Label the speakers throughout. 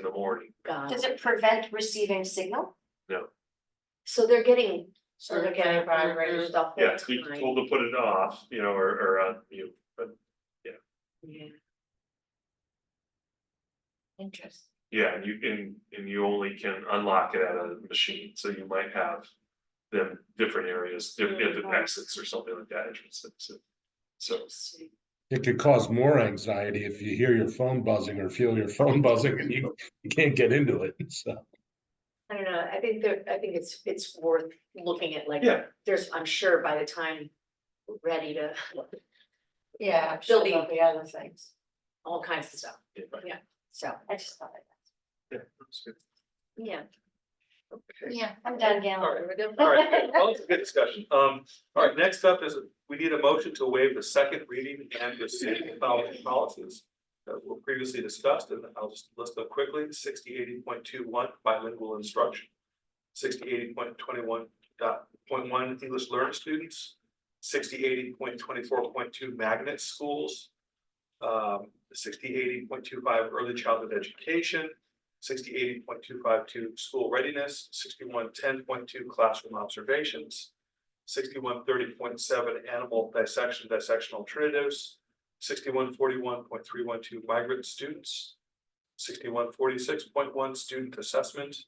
Speaker 1: in the morning.
Speaker 2: God.
Speaker 3: Does it prevent receiving signal?
Speaker 2: So they're getting.
Speaker 3: So they're getting
Speaker 2: vibrator stuff. all
Speaker 1: Yeah,
Speaker 2: the
Speaker 1: so you're
Speaker 2: time.
Speaker 1: told to put it off, you know, or, or, uh, you, but,
Speaker 2: Yeah. Interesting.
Speaker 1: yeah, and you can, and you only can unlock it at a machine, so you might have. Them different areas, different
Speaker 2: Mhm.
Speaker 1: exits or something like that, entrances, so. So,
Speaker 2: Interesting.
Speaker 4: It could cause more anxiety if you hear your phone buzzing or feel your phone buzzing and you, you can't get into it, so.
Speaker 2: I don't know, I think there, I think it's, it's worth looking at, like,
Speaker 1: yeah,
Speaker 2: there's, I'm sure by the time we're ready to,
Speaker 3: Yeah,
Speaker 2: sure there'll
Speaker 3: be other things.
Speaker 2: all kinds of stuff,
Speaker 1: yeah, right,
Speaker 2: so, I just thought of
Speaker 1: yeah, that's good.
Speaker 2: that, yeah.
Speaker 1: Okay.
Speaker 3: Yeah, I'm done,
Speaker 1: All
Speaker 3: Gal.
Speaker 1: right, all right, well, it's a good discussion, um, all right, next up is, we need a motion to waive the second reading and the city following policies. That were previously discussed, and I'll just list them quickly, sixty eighty point two one bilingual instruction. Sixty eighty point twenty one dot point one English learner students. Sixty eighty point twenty four point two magnet schools. Um, sixty eighty point two five early childhood education sixty eighty point two five two school readiness, sixty-one ten point two classroom observations, sixty-one thirty point seven animal dissection, dissection alternatives, sixty-one forty-one point three one two migrant students, sixty-one forty-six point one student assessment,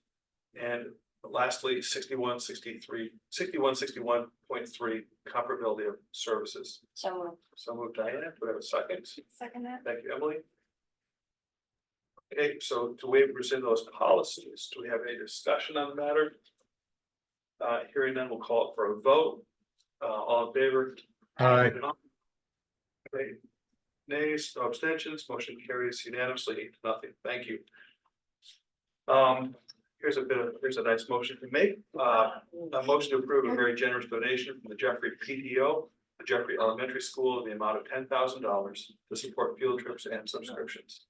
Speaker 1: and lastly, 61 63 61 61 point three comparability of services.
Speaker 3: So
Speaker 1: So move Diana, do I have a second?
Speaker 3: second that.
Speaker 1: Thank you, Emily. Okay, so to waive rescind those policies, do we have any discussion on the matter? Uh, hearing none, we'll call it for a vote. Uh, all in favor?
Speaker 4: Aye.
Speaker 1: Okay. Nays, no abstentions, motion carries unanimously, eight to nothing, thank you. Um, here's a bit of, here's a nice motion to make, uh, a motion to approve a very generous donation from the Jeffrey PTO, the Jeffrey Elementary School, in the amount of ten thousand dollars to support field trips and subscriptions.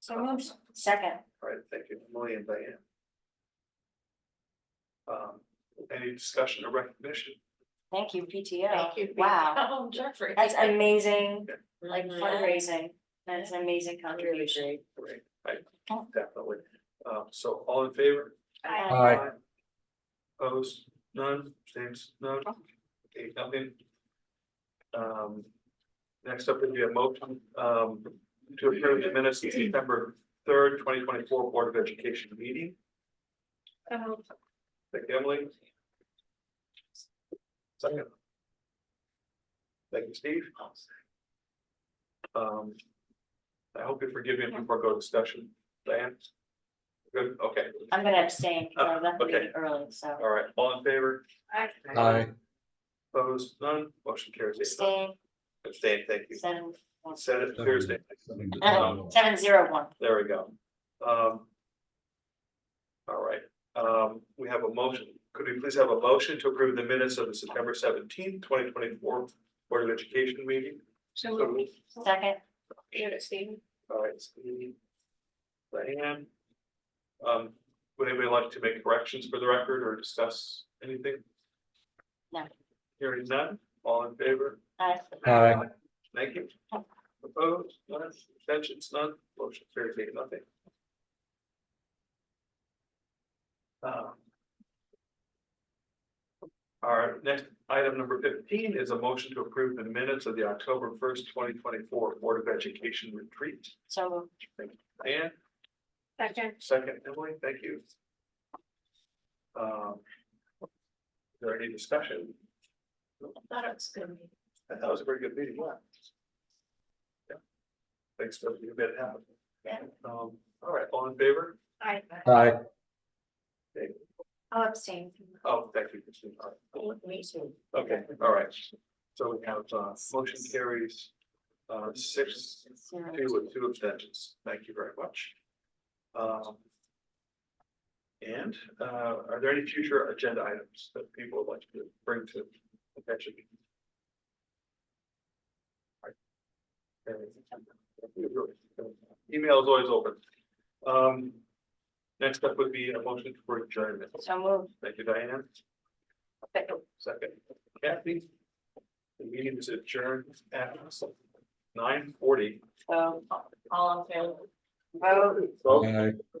Speaker 3: So moved. Second.
Speaker 1: All right, thank you, Emily and Diane. Um, any discussion or recognition?
Speaker 3: Thank you, PTO.
Speaker 2: Thank you.
Speaker 3: Wow,
Speaker 2: Oh, Jeffrey.
Speaker 3: that's amazing, like
Speaker 2: Mhm.
Speaker 3: fundraising. That's an amazing contribution.
Speaker 2: Contribution.
Speaker 1: Great, I definitely. Um, so all in favor?
Speaker 3: Aye.
Speaker 1: Uh,
Speaker 4: Aye.
Speaker 1: Opposed, none, abstains, none, okay, nothing. Um, next up would be a motion, um, to approve the minutes of September third, twenty twenty-four Board of Education meeting. Thank you, Emily. Second. Thank you, Steve. Um, I hope you forgive me before I go to discussion, Diane. Good, okay,
Speaker 3: I'm gonna abstain, because I left the
Speaker 1: okay.
Speaker 3: meeting early, so
Speaker 1: all right, all in favor?
Speaker 4: Aye.
Speaker 1: Opposed, none, motion carries. Eight, none.
Speaker 3: abstain,
Speaker 1: Abstain, thank you.
Speaker 3: seven,
Speaker 1: Said it Thursday,
Speaker 3: no, seven zero one.
Speaker 1: there we go. Um. All right, um, we have a motion, could we please have a motion to approve the minutes of the September seventeenth, twenty twenty-four Board of Education meeting? So moved.
Speaker 3: Second,
Speaker 1: All right, Steve. Diane. Um, would anybody like to make corrections for the record or discuss anything?
Speaker 3: No.
Speaker 1: Hearing none, all in favor?
Speaker 3: aye.
Speaker 4: Aye.
Speaker 1: Thank you. Opposed, none, abstentions, none, motion carries eight, nothing. Um, Our next item number fifteen is a motion to approve the minutes of the October first, twenty twenty-four Board of Education retreat.
Speaker 3: so moved.
Speaker 1: Diane? Second. Second, Emily, thank you. Um. is There any discussion?
Speaker 2: Thought it was gonna be.
Speaker 1: I thought it was a very good meeting. Yeah. Thanks for the event happening.
Speaker 2: Yeah.
Speaker 1: Um, all right, all in favor?
Speaker 2: I,
Speaker 4: Aye.
Speaker 2: I'll abstain.
Speaker 1: Oh, thank you, Christine. All right.
Speaker 2: Me too.
Speaker 1: Okay, all right. So we have, uh, motion carries, uh, six,
Speaker 3: Zero.
Speaker 1: two with two abstentions. Thank you very much. Um. And, uh, are there any future agenda items that people would like to bring to attention? All right. Email is always open. Um. Next up would be a motion for adjournment.
Speaker 3: So moved.
Speaker 1: Thank you, Diana. Second, Kathy. The meeting is adjourned at nine forty.
Speaker 2: um,
Speaker 3: So all in favor? Vote.
Speaker 1: Vote.
Speaker 4: Aye.